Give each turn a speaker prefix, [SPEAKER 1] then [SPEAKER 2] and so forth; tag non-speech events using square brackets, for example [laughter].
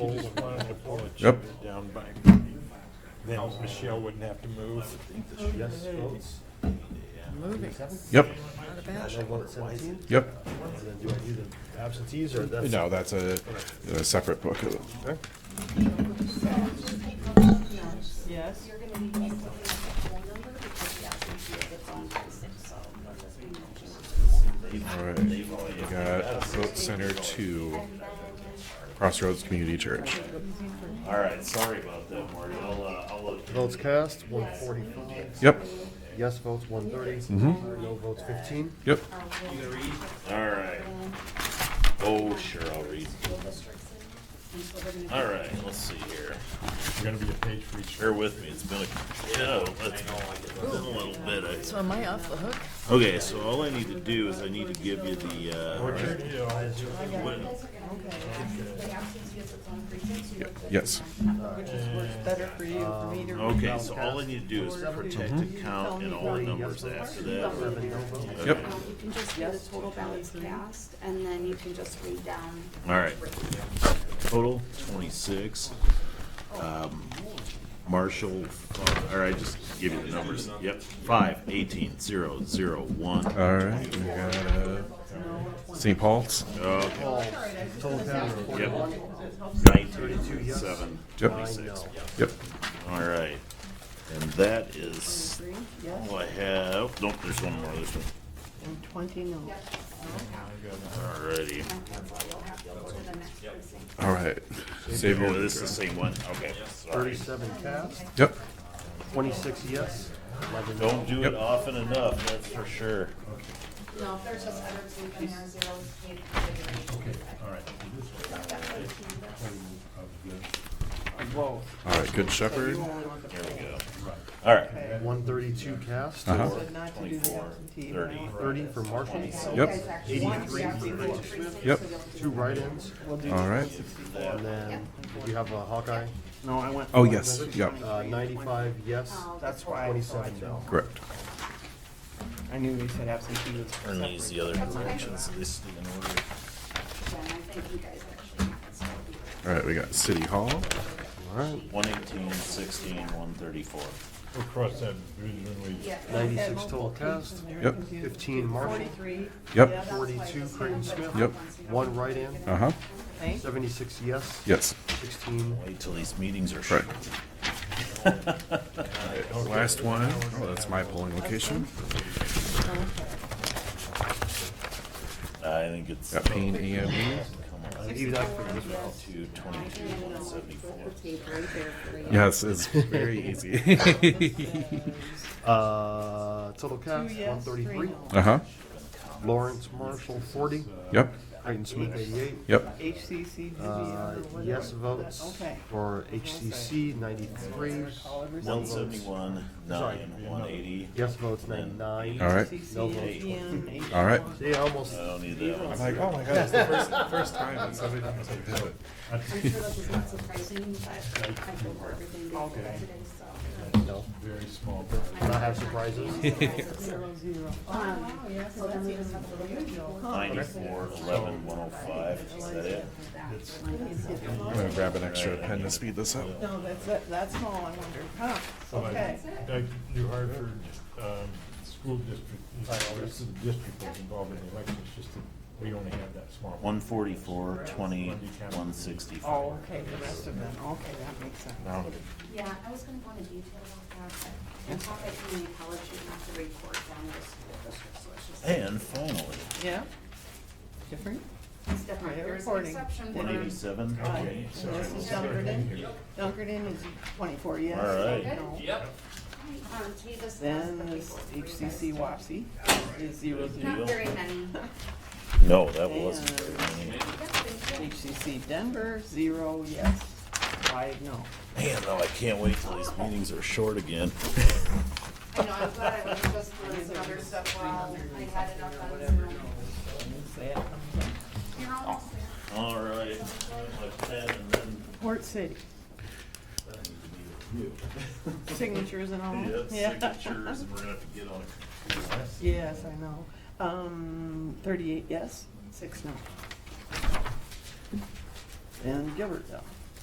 [SPEAKER 1] Roll the one on the floor and
[SPEAKER 2] Yep.
[SPEAKER 1] shove it Down by, then Michelle wouldn't have to move. Yes, votes.
[SPEAKER 3] Moving,
[SPEAKER 2] Yep,
[SPEAKER 3] not a bad thing.
[SPEAKER 2] yep.
[SPEAKER 4] Do I need the absentees or that's?
[SPEAKER 2] No, that's a, a separate book.
[SPEAKER 3] Yes,
[SPEAKER 2] All right, we got vote center two, Crossroads Community Church.
[SPEAKER 5] All right, sorry about that, Marty. I'll, uh, I'll look.
[SPEAKER 4] Votes cast, one forty-five.
[SPEAKER 2] Yep,
[SPEAKER 4] Yes votes, one thirty.
[SPEAKER 2] Mm-hmm.
[SPEAKER 4] No votes, fifteen.
[SPEAKER 2] yep.
[SPEAKER 5] All right. Oh, sure, I'll read. All right, let's see here.
[SPEAKER 1] There's gonna be a page for each.
[SPEAKER 5] Bear with me. It's been a, yeah, it's been a little bit. I-
[SPEAKER 3] so am I off the hook?
[SPEAKER 5] Okay, so all I need to do is I need to give you the, uh, what-
[SPEAKER 2] Yes.
[SPEAKER 3] Which is works better for you, for me to read.
[SPEAKER 5] uh, okay, so all I need to do is protect account and all the numbers after that.
[SPEAKER 4] Seven no votes.
[SPEAKER 2] Yep.
[SPEAKER 6] Um, You can just do the total balance cast, and then you can just read down.
[SPEAKER 5] All right. Total twenty-six. Um, Marshall, five- all right, just give you the numbers. Yep, five, eighteen, zero, zero, one.
[SPEAKER 2] All right, we got uh, St. Paul's.
[SPEAKER 5] Okay,
[SPEAKER 4] All Total down to
[SPEAKER 5] yep.
[SPEAKER 4] forty-one.
[SPEAKER 5] Nineteen,
[SPEAKER 4] yes.
[SPEAKER 5] seven,
[SPEAKER 2] Yep.
[SPEAKER 5] twenty-six.
[SPEAKER 2] Yep.
[SPEAKER 5] All right. And that is
[SPEAKER 3] Three, yes,
[SPEAKER 5] all I have. Nope, there's one more, there's one.
[SPEAKER 3] and twenty no.
[SPEAKER 5] All righty.
[SPEAKER 2] All right. Save
[SPEAKER 5] Oh,
[SPEAKER 2] your.
[SPEAKER 5] this is the same one? Okay, sorry.
[SPEAKER 4] Thirty-seven cast,
[SPEAKER 2] Yep,
[SPEAKER 4] twenty-six yes, eleven no.
[SPEAKER 5] Don't do
[SPEAKER 2] Yep.
[SPEAKER 5] it often enough, that's for sure.
[SPEAKER 6] No, if there's just other two in there, zeros, can't figure it out.
[SPEAKER 2] all right, Good Shepherd.
[SPEAKER 5] There we go. All right.
[SPEAKER 4] One thirty-two cast,
[SPEAKER 2] Uh-huh.
[SPEAKER 3] But not to do the absentee.
[SPEAKER 5] Thirty.
[SPEAKER 4] thirty for Marshall.
[SPEAKER 2] Yep,
[SPEAKER 4] Eighty-three for Rachel Smith,
[SPEAKER 2] yep,
[SPEAKER 4] two write-ins,
[SPEAKER 2] all right.
[SPEAKER 4] and then did you have a Hawkeye?
[SPEAKER 7] No, I went.
[SPEAKER 2] Oh, yes, yep,
[SPEAKER 4] Uh, ninety-five yes,
[SPEAKER 7] That's why I
[SPEAKER 4] twenty-seven
[SPEAKER 7] thought-
[SPEAKER 4] no.
[SPEAKER 2] correct.
[SPEAKER 7] I knew they said absentee was.
[SPEAKER 5] Ernie's the other direction, so this is in order.
[SPEAKER 6] Then I think you guys actually have it, so it'll be-
[SPEAKER 2] All right, we got City Hall.
[SPEAKER 5] One eighteen, sixteen, one thirty-four.
[SPEAKER 1] We'll cross that bridge when we.
[SPEAKER 6] Yeah.
[SPEAKER 4] Ninety-six total cast,
[SPEAKER 2] Yep.
[SPEAKER 4] fifteen Marshall,
[SPEAKER 3] Forty-three.
[SPEAKER 2] Yep.
[SPEAKER 3] yes,
[SPEAKER 4] forty-two Creighton Smith.
[SPEAKER 2] Yep.
[SPEAKER 4] One write-in,
[SPEAKER 2] Uh huh.
[SPEAKER 3] okay.
[SPEAKER 4] seventy-six yes,
[SPEAKER 2] Yes.
[SPEAKER 4] sixteen
[SPEAKER 5] Wait till these meetings are
[SPEAKER 2] Right.
[SPEAKER 5] short.
[SPEAKER 2] Last one. Oh, that's my polling location.
[SPEAKER 5] [laughs]
[SPEAKER 3] [laughs]
[SPEAKER 5] I think it's.
[SPEAKER 2] Got Payne AME.
[SPEAKER 4] Maybe that for this one.
[SPEAKER 5] Two twenty-two, one seventy-four.
[SPEAKER 2] Yes, it's very easy. [laughs]
[SPEAKER 4] Uh, total cast,
[SPEAKER 3] Two
[SPEAKER 4] one
[SPEAKER 3] yes, three
[SPEAKER 4] thirty-three.
[SPEAKER 3] no.
[SPEAKER 2] uh huh.
[SPEAKER 4] Lawrence Marshall, forty.
[SPEAKER 2] Yep.
[SPEAKER 4] Creighton Smith, eighty-eight.
[SPEAKER 2] Yep.
[SPEAKER 3] HCC, Vivian,
[SPEAKER 4] Uh,
[SPEAKER 3] or whatever.
[SPEAKER 4] yes votes
[SPEAKER 3] Okay.
[SPEAKER 4] for HCC, ninety-three.
[SPEAKER 3] Oliver's.
[SPEAKER 5] One seventy-one,
[SPEAKER 4] Sorry.
[SPEAKER 5] nine, one eighty.
[SPEAKER 4] Yes votes, ninety-nine.
[SPEAKER 2] All right.
[SPEAKER 3] HCC,
[SPEAKER 4] No votes.
[SPEAKER 3] Vivian, H-
[SPEAKER 2] All right.
[SPEAKER 4] See, I almost,
[SPEAKER 5] I don't need that one.
[SPEAKER 2] I'm like, oh my god, it's the first, first time that somebody like did it.
[SPEAKER 6] I'm sure that was not surprising, but I feel for everything before today, so.
[SPEAKER 4] no,
[SPEAKER 1] Very small.
[SPEAKER 4] Can I have surprises. [laughs]
[SPEAKER 3] Zero, zero.
[SPEAKER 6] Um, so then we just have to look at your-
[SPEAKER 5] Ninety-four, eleven, one oh five. Is that it?
[SPEAKER 2] I'm gonna grab an extra pen to speed this up.
[SPEAKER 3] No, that's, that- that's small, I wonder. Huh, okay.
[SPEAKER 1] Like New Hartford, um, school district, the rest of the district that's involved in the elections, just that we only have that small. one.
[SPEAKER 5] One forty-four, twenty, one
[SPEAKER 3] Oh,
[SPEAKER 5] sixty-four.
[SPEAKER 3] okay, the rest of them, okay, that makes sense.
[SPEAKER 6] Yeah, I was gonna go into detail about that, but I thought that community college should have to report down to the school district, so it's just.
[SPEAKER 5] And finally,
[SPEAKER 3] Yeah? Different?
[SPEAKER 6] It's different,
[SPEAKER 3] They're
[SPEAKER 6] there's an
[SPEAKER 3] reporting.
[SPEAKER 6] exception
[SPEAKER 5] one
[SPEAKER 6] for,
[SPEAKER 5] eighty-seven. Okay.
[SPEAKER 3] And this is Dunkerton. Dunkerton is twenty-four, yes.
[SPEAKER 5] All right.
[SPEAKER 3] No.
[SPEAKER 6] um, to be this.
[SPEAKER 3] Then this HCC WAPSI is zero
[SPEAKER 6] Not
[SPEAKER 3] zero.
[SPEAKER 6] very many.
[SPEAKER 4] [laughs]
[SPEAKER 6] [laughs]
[SPEAKER 5] No, that wasn't very many.
[SPEAKER 3] HCC Denver, zero, yes. Five, no.
[SPEAKER 5] Man, though, I can't wait till these meetings are short again. [laughs]
[SPEAKER 6] I know, I'm glad I was just doing some other stuff while I had enough on Zoom. You're almost there.
[SPEAKER 5] All right. My pen and then
[SPEAKER 3] Port City. Signatures and all.
[SPEAKER 5] Yeah, signatures, and we're gonna have to get on a computer.
[SPEAKER 3] [laughs] Yes, I know. Um, thirty-eight, yes, six, no. And Gilbertville.